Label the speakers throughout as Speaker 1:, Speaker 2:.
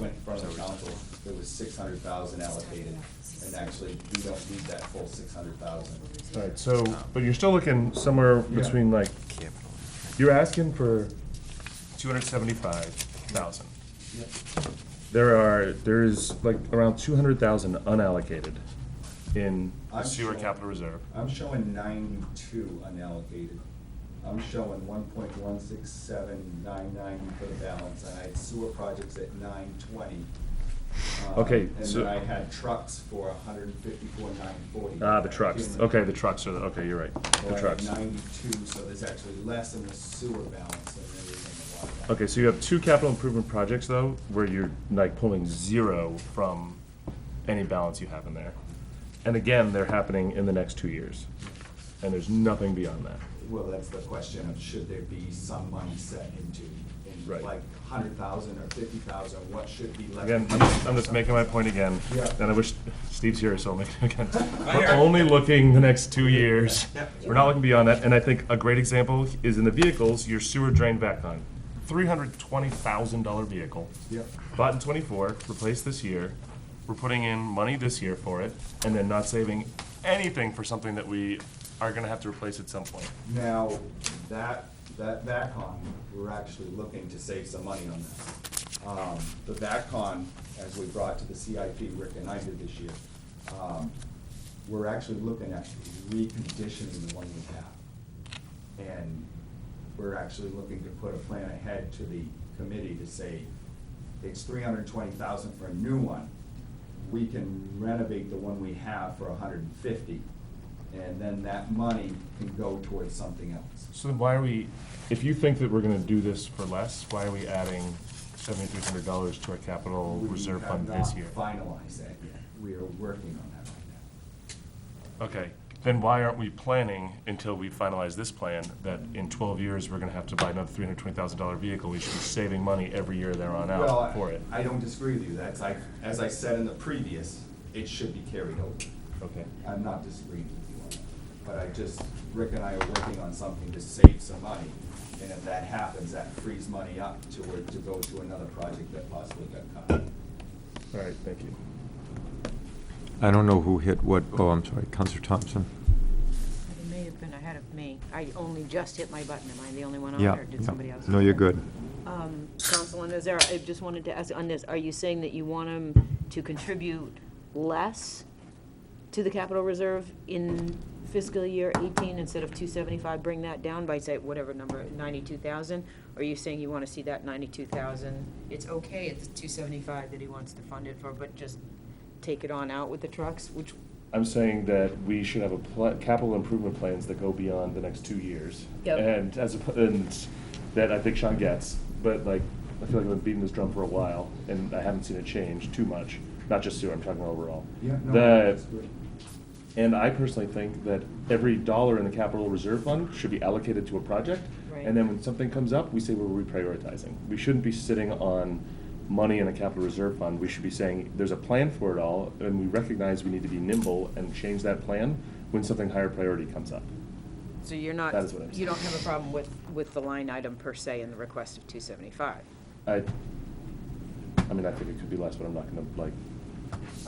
Speaker 1: went in front of the council, there was six hundred thousand allocated, and actually, we don't need that full six hundred thousand.
Speaker 2: Right, so, but you're still looking somewhere between like, you're asking for two hundred seventy-five thousand. There are, there is like around two hundred thousand unallocated in the
Speaker 1: I'm
Speaker 2: sewer
Speaker 1: sure.
Speaker 2: capital reserve.
Speaker 1: I'm showing ninety-two unallocated. I'm showing one point one six seven nine nine for the balance, and I had sewer projects at nine twenty. Uh,
Speaker 2: Okay,
Speaker 1: And
Speaker 2: so-
Speaker 1: then I had trucks for hundred and fifty-four nine forty.
Speaker 2: Ah, the trucks, okay, the trucks are, the- okay, you're right, the trucks.
Speaker 1: ninety-two, so there's actually less in the sewer balance than there is in the water. balance.
Speaker 2: Okay, so you have two capital improvement projects though, where you're like pulling zero from any balance you have in there. And again, they're happening in the next two years, and there's nothing beyond that.
Speaker 1: Well, that's the question of should there be some money set into,
Speaker 2: Right.
Speaker 1: in like hundred thousand or fifty thousand, what should be left?
Speaker 2: Again, I'm just, I'm just making my point again,
Speaker 1: Yeah.
Speaker 2: and I wish Steve's here, so I'll make it again.
Speaker 3: I
Speaker 2: We're
Speaker 3: heard.
Speaker 2: only looking the next two years.
Speaker 1: Yeah.
Speaker 2: We're not looking beyond that, and I think a great example is in the vehicles, your sewer drain back on. Three hundred twenty thousand dollar vehicle.
Speaker 1: Yep.
Speaker 2: Bought in twenty-four, replaced this year. We're putting in money this year for it, and then not saving anything for something that we are gonna have to replace at some point.
Speaker 1: Now, that, that VACCON, we're actually looking to save some money on that. Um, The VACCON, as we brought to the CIP, Rick and I did this year, um, we're actually looking at reconditioning the one we have. And we're actually looking to put a plan ahead to the committee to say, it's three hundred and twenty thousand for a new one. We can renovate the one we have for a hundred and fifty, and then that money can go towards something else.
Speaker 2: So then why are we, if you think that we're gonna do this for less, why are we adding seventy-three hundred dollars to our capital reserve fund this year?
Speaker 1: We have not finalized that yet. We are working on that right now.
Speaker 2: Okay, then why aren't we planning until we finalize this plan, that in twelve years, we're gonna have to buy another three hundred twenty thousand dollar vehicle? We should be saving money every year there on
Speaker 1: Well,
Speaker 2: out
Speaker 1: I-
Speaker 2: for it.
Speaker 1: I don't disagree with you. That's like, as I said in the previous, it should be carried over.
Speaker 2: Okay.
Speaker 1: I'm not disagreeing with you on that, but I just, Rick and I are working on something to save some money. And if that happens, that frees money up to, to go to another project that possibly got cut.
Speaker 2: All right, thank you.
Speaker 3: I don't know who hit what, oh, I'm sorry, Counselor Thompson?
Speaker 4: It may have been ahead of me. I only just hit my button. Am I the only one on
Speaker 3: Yeah.
Speaker 4: there? or Did
Speaker 3: yeah.
Speaker 4: somebody else?
Speaker 3: No, you're good.
Speaker 4: Um, Councilman Azar, I just wanted to ask on this, are you saying that you want them to contribute less to the capital reserve in fiscal year 18 instead of 275, bring that down by, say, whatever number, 92,000? Or are you saying you want to see that 92,000? It's okay, it's 275 that he wants to fund it for, but just take it on out with the trucks, which,
Speaker 2: I'm saying that we should have a pla- capital improvement plans that go beyond the next two years.
Speaker 4: Yep.
Speaker 2: And as, a- and that I think Sean gets, but like, I feel like I've been beating this drum for a while, and I haven't seen it change too much, not just sewer, I'm talking about overall.
Speaker 1: Yeah, no,
Speaker 2: The-
Speaker 1: that's good.
Speaker 2: And I personally think that every dollar in the capital reserve fund should be allocated to a project.
Speaker 4: Right.
Speaker 2: And then when something comes up, we say we're reprioritizing. We shouldn't be sitting on money in a capital reserve fund. We should be saying, there's a plan for it all, and we recognize we need to be nimble and change that plan when something higher priority comes up.
Speaker 4: so you're not,
Speaker 2: That is what I'm
Speaker 4: you don't have a problem with, with the line item per se in the request of 275?
Speaker 2: I, I mean, I think it could be less, but I'm not gonna like,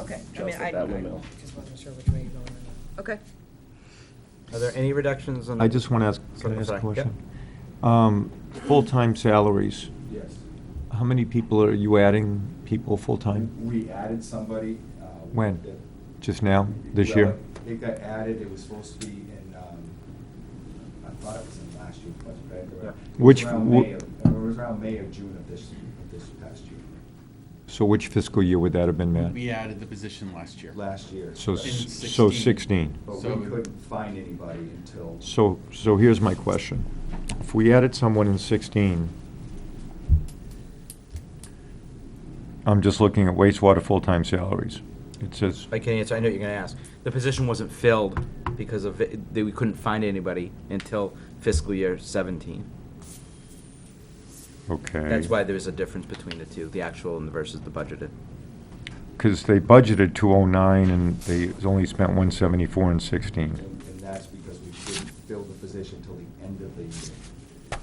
Speaker 4: Okay, I
Speaker 2: Just
Speaker 4: mean, I,
Speaker 2: at that windmill.
Speaker 4: I just wasn't sure which way you're going on that. Okay.
Speaker 5: Are there any reductions on?
Speaker 3: I just want to ask, can I ask a
Speaker 5: Sorry, yep.
Speaker 3: question? Um, Full-time salaries,
Speaker 1: Yes.
Speaker 3: how many people are you adding, people full-time,
Speaker 1: We added somebody. uh,
Speaker 3: When?
Speaker 1: that-
Speaker 3: just now, this
Speaker 1: Well,
Speaker 3: year?
Speaker 1: It got added, it was supposed to be in, um, I thought it was in last year's budget, right? It was
Speaker 3: Which
Speaker 1: around
Speaker 3: wo-
Speaker 1: May of- It was around May or June of this, of this past year,
Speaker 3: So which fiscal year would that have been, Matt?
Speaker 6: We added the position last year.
Speaker 1: last year.
Speaker 3: So,
Speaker 6: In
Speaker 3: s- so
Speaker 6: 16.
Speaker 3: 16.
Speaker 1: But
Speaker 6: So-
Speaker 1: we couldn't find anybody until.
Speaker 3: So, so here's my question. If we added someone in 16, I'm just looking at wastewater full-time salaries. It says,
Speaker 5: I can answer, I know what you're gonna ask. The position wasn't filled because of, it- that we couldn't find anybody until fiscal year seventeen.
Speaker 3: okay.
Speaker 5: That's why there's a difference between the two, the actual and the versus the budgeted.
Speaker 3: Because they budgeted 209 and they only spent 174 in 16.
Speaker 1: And and that's because we didn't fill the position till the end of the year.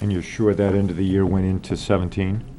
Speaker 3: And you're sure that end of the year went into 17?